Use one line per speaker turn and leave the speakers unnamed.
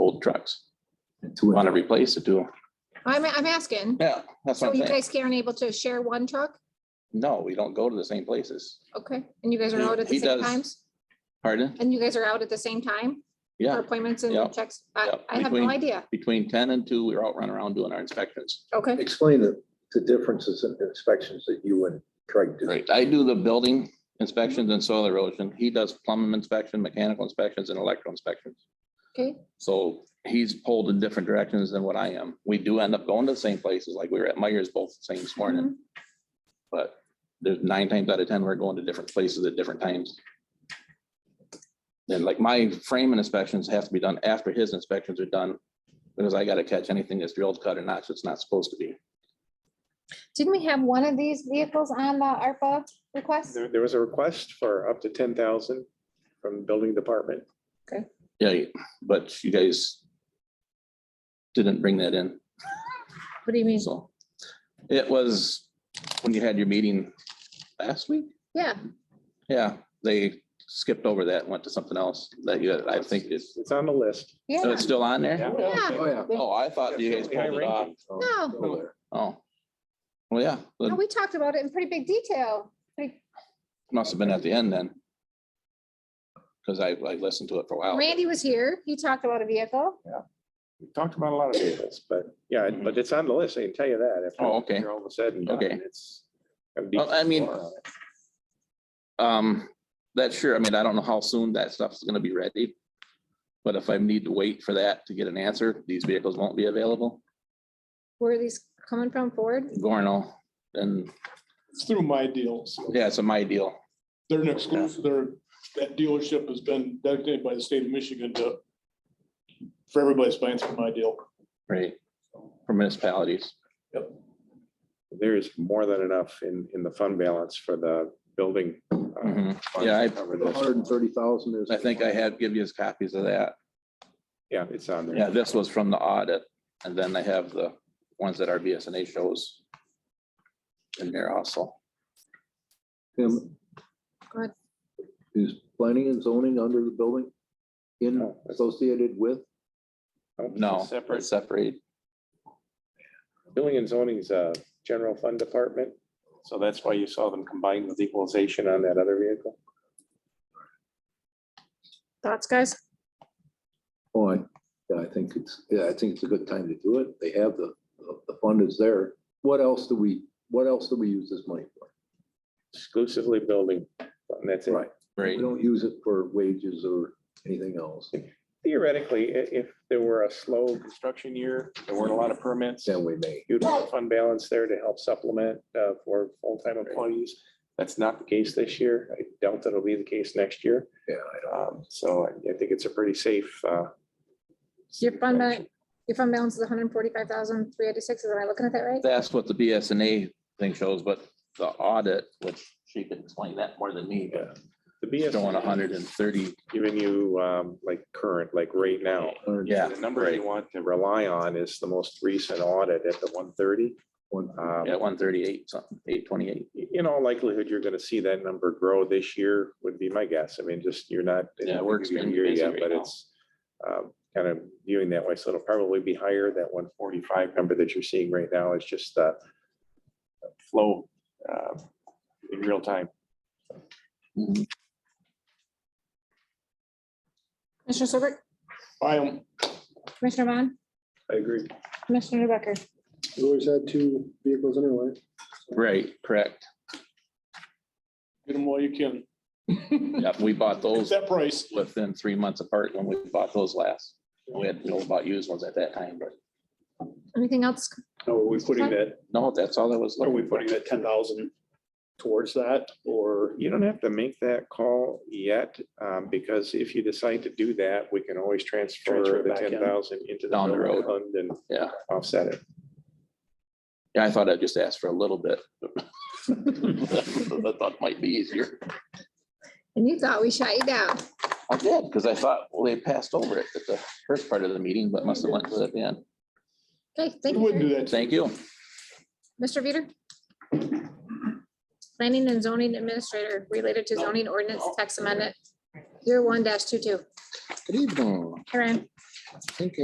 old trucks.
Two
Want to replace the two?
I'm, I'm asking.
Yeah, that's
So
what
you
I'm saying.
guys aren't able to share one truck?
No, we don't go to the same places.
Okay, and you guys are
He-
out at
he
the same
does.
times?
Pardon?
And you guys are out at the same time for
Yeah,
appointments
Yeah.
and checks? I,
Yeah.
I have no
Between-
idea.
between ten and two, we were out running around doing our inspections.
Okay,
Explain the, the differences in inspections that you and Craig do.
Right, I do the building inspections and soil erosion. He does plumbing inspection, mechanical inspections and electrical inspections.
okay,
So he's pulled in different directions than what I am. We do end up going to the same places, like we were at Myers both the same this morning.
Mm-hmm.
But there's nine times out of ten, we're going to different places at different times. And like my framing inspections have to be done after his inspections are done, because I gotta catch anything that's drilled, cut or not, so it's not supposed to be.
Didn't we have one of these vehicles on the ARPA request?
There, there was a request for up to ten thousand from the building department.
Yeah, but you guys didn't bring that in.
What do you mean?
So it was when you had your meeting last week?
Yeah,
Yeah, they skipped over that, and went to something else that you, I think it's,
It's on the list.
so
yeah,
it's still on there?
yeah.
Oh, yeah.
Oh, I thought you guys pulled it off.
No,
Still there.
Oh. Well, yeah,
no,
but
we talked about it in pretty big detail. Pretty-
must have been at the end then. Because I, I listened to it for a while.
Randy was here. He talked about a vehicle.
We Talked about a lot of vehicles, but yeah, it- but it's on the list. I can tell you that. after
Oh, okay.
All of a sudden. done,
Okay.
It's. gonna be- uh,
Well, I mean- Um, that's sure, I mean, I don't know how soon that stuff's gonna be ready. But if I need to wait for that to get an answer, these vehicles won't be available.
Where are these coming from? Ford?
Gorno, and,
It's through my deals.
yeah, it's a my deal.
They're an exclusive, they're, that dealership has been designated by the state of Michigan to, for everybody's buying through my deal.
Right. For municipalities.
There is more than enough in, in the fund balance for the building. uh,
Mhm.
funds
Yeah, I-
to cover
The
this.
hundred and thirty thousand is.
I think I have, give you his copies of that.
Yeah, it's on there.
Yeah, this was from the audit, and then I have the ones that our BSNA shows in there also.
Tim,
Go ahead.
Is planning and zoning under the building in
No.
associated with?
No,
Oh, Separate.
it's separate.
Building and zoning is a general fund department. So that's why you saw them combined with equalization on that other vehicle.
Thoughts, guys?
Oh, I, yeah, I think it's, yeah, I think it's a good time to do it. They have the, the- the fund is there. What else do we, what else do we use this money for?
Exclusively building. And that's it.
Right.
Right.
We don't use it for wages or anything else.
Theoretically, i- if there were a slow construction year, there weren't a lot of permits,
Then we may.
you'd want a fund balance there to help supplement uh, for full-time employees. That's not the case this year. I doubt that'll be the case next year.
Yeah,
Um, So I I think it's a pretty safe. uh,
Your fund, ba- your fund balance is hundred and forty-five thousand, three eighty-six. Am I looking at that right?
That's what the BSNA thing shows, but the audit, which she can explain that more than me, but
The
it's showing
BSNA
hundred and thirty.
Giving you um, like current, like right now.
Yeah.
The number
right.
you want to rely on is the most recent audit at the one thirty. Um,
One-
Yeah, one thirty-eight, something, eight twenty-eight.
In all likelihood, you're gonna see that number grow this year would be my guess. I mean, just you're not.
Yeah, we're
it's your
extremely
year
busy
yet,
right
But
now.
it's um, kind of viewing that way. So it'll probably be higher. That one forty-five number that you're seeing right now is just the flow uh, in real time.
Commissioner Serbrook,
Buy them.
Commissioner Vaughn,
I agree.
Commissioner Becker.
We always had two vehicles anyway.
Right, correct.
Get them while you can.
Yeah, we bought
It's
those
that price.
within three months apart when we bought those last. We had no about used ones at that time, but
Anything else?
Now, are we putting that,
no, that's all I was.
are we
looking for.
putting that ten thousand towards that or?
You don't have to make that call yet, um, because if you decide to do that, we can always
Transfer
transfer
it
the
back in.
ten thousand into the
Down the
general
road.
fund and
Yeah.
offset it.
Yeah, I thought I'd just ask for a little bit. I thought might be easier.
And you thought we shut you down.
I did, because I thought, well, they passed over it at the first part of the meeting, but must have went to the end.
Okay,
We
thank
wouldn't
you.
do that.
Thank you.
Mr. Veeder? Planning and zoning administrator related to zoning ordinance text amendment 01-22.
Good evening.
Karen?
I think